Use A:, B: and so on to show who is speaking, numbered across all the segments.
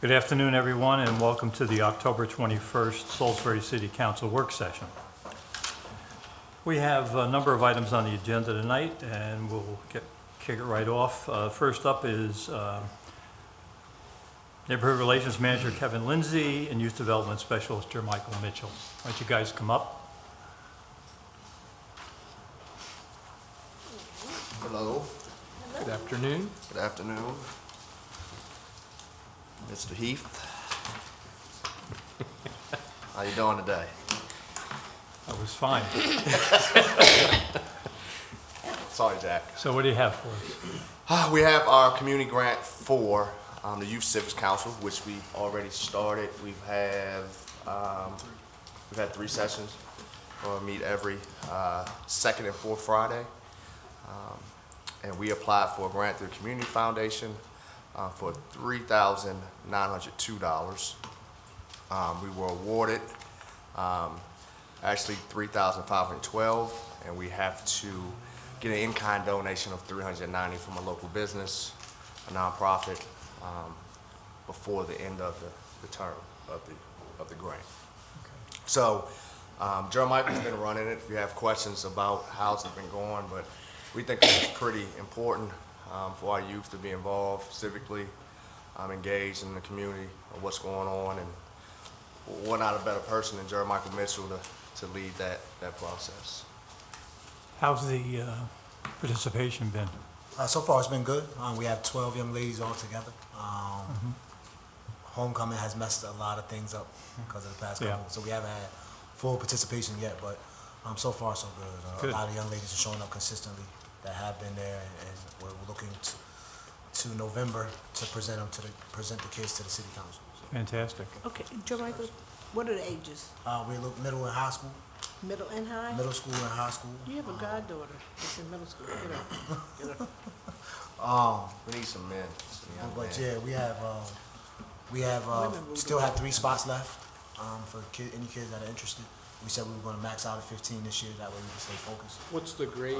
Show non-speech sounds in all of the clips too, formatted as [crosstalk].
A: Good afternoon, everyone, and welcome to the October 21st Salisbury City Council Work Session. We have a number of items on the agenda tonight, and we'll get- kick it right off. Uh, First up is uh, Neighborhood Relations Manager Kevin Lindsay and Youth Development Specialist Jermichael Mitchell. Why don't you guys come up?
B: Hello,
C: Good afternoon.
B: good afternoon. Mr. Heath. How you doing today?
A: That was fine.
B: Sorry, Jack.
A: So what do you have for us?
B: Ah, We have our community grant for um, the Youth Civics Council, which we've already started. We've have, um, we've had three sessions. We'll meet every uh, second and fourth Friday. Um, And we applied for a grant through Community Foundation uh, for three thousand nine hundred two dollars. We were awarded um, actually three thousand five hundred twelve, and we have to get an in-kind donation of three hundred ninety from a local business, a nonprofit, um, before the end of the, the term of the, of the grant. So, um, Jeremiah's been running it. If you have questions about how's it been going, but we think it's pretty important, um, for our youth to be involved civically, um, engaged in the community, of what's going on, and we're not a better person than Jeremiah Mitchell to, to lead that, that process.
A: How's the uh, participation been?
D: Uh, so far, it's been good. Um, we have 12 young ladies all together. Um, Homecoming has messed a lot of things up because of the past
A: Yeah.
D: couple. So we haven't had full participation yet, but um, so far, so good. Uh,
A: Good.
D: A lot of young ladies are showing up consistently that have been there, and we're looking to, to November to present them to the, present the kids to the city council. So,
A: Fantastic.
E: Okay, Jermichael, what are the ages?
D: uh, we look middle and high school,
E: Middle and high?
D: middle school and high school.
E: You have a goddaughter that's in middle school, you know. [laughs]
B: We need some men, some young
D: But
B: men.
D: yeah, we have, um, we have, uh,
E: Women will
D: still
E: do
D: have three spots left, um, for kid, any kids that are interested. We said we were gonna max out at fifteen this year, that way we can stay focused.
C: What's the grade?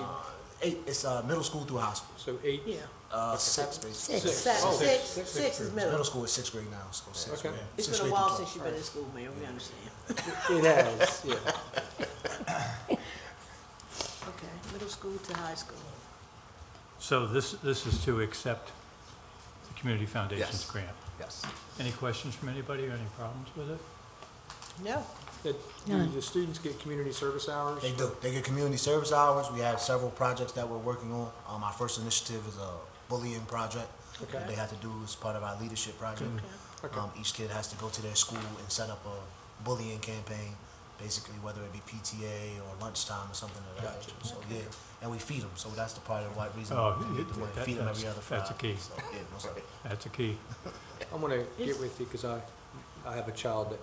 D: Eight, it's, uh, middle school through high school,
C: So eight?
E: Yeah.
D: uh, six, basically.
E: Six,
C: Oh,
E: six,
C: six.
E: six is
D: Middle
E: middle.
D: school is sixth grade now, so sixth
C: Okay.
D: grade.
E: It's
D: sixth
E: been a
D: grade
E: while
D: through
E: since you've been in school, man, we understand.
C: It has, yeah.
E: Okay, middle school to high school.
A: So this, this is to accept the Community Foundation's
B: Yes.
A: grant?
B: Yes.
A: Any questions from anybody or any problems with it?
E: No,
C: [laughs] That- Do the students get community service hours?
D: 12. They do, they get community service hours, we have several projects that we're working on. Um, our first initiative is a bullying project that
C: Okay.
D: they have to do as part of our leadership project.
C: Okay.
D: Um, each kid has to go to their school and set up a bullying campaign, basically whether it be PTA or lunchtime or something of that nature. So yeah, and we feed them. So that's the part of why reason
A: Oh,
D: we feed them,
A: that-
D: we feed them every
A: that's-
D: other Friday.
A: that's a key.
D: So, yeah, most of it.
A: That's a key.
C: I'm gonna get with you because I, I have a child that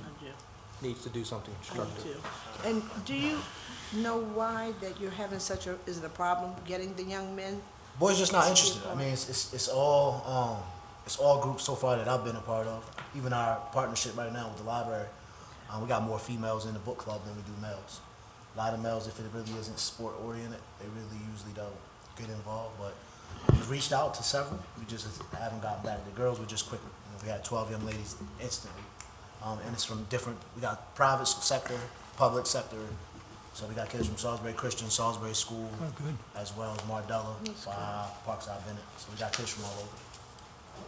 E: I do,
C: needs to do something
E: I do
C: constructive.
E: too. And do you know why that you're having such a, is it a problem getting the young men?
D: Boys just not interested. I mean, it's, it's, it's all um, it's all groups so far that I've been a part of. Even our partnership right now with the library, um, we got more females in the book club than we do males. A lot of males, if it really isn't sport oriented, they really usually don't get involved. But we've reached out to several. We just haven't gotten back. The girls were just quicker. You know, we had 12 young ladies instantly, um, and it's from different. We got private sector, public sector. So we got kids from Salisbury Christian, Salisbury School,
A: Oh, good.
D: as well as Mardella, Five, Parkside Bennett. So we got kids from all over.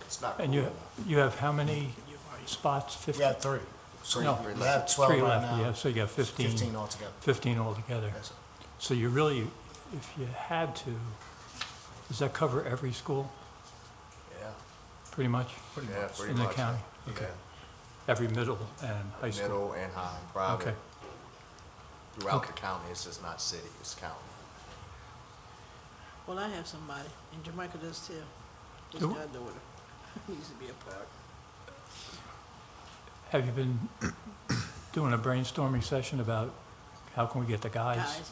B: It's not.
A: And you, you have how many spots? Fif-
D: We have three.
B: So
A: No.
B: you're
D: We have
B: left.
D: twelve
A: Three
D: right
A: left,
D: now.
A: yeah, so you got 15.
D: Fifteen altogether.
A: 15 altogether.
D: Yes, sir.
A: So you really, if you had to, does that cover every school,
B: Yeah,
A: pretty much?
B: yeah, pretty
A: In the
B: much.
A: county? Okay. Every middle and high
B: Yeah,
A: school?
B: Middle and high,
A: Okay,
B: private, throughout
A: Okay.
B: the county, it's just not city, it's county.
E: Well, I have somebody, and Jermichael does too, his
A: Who?
E: goddaughter. [laughs] Needs to be a part.
A: Have you been doing a brainstorming session about how can we get the guys?
E: Guys,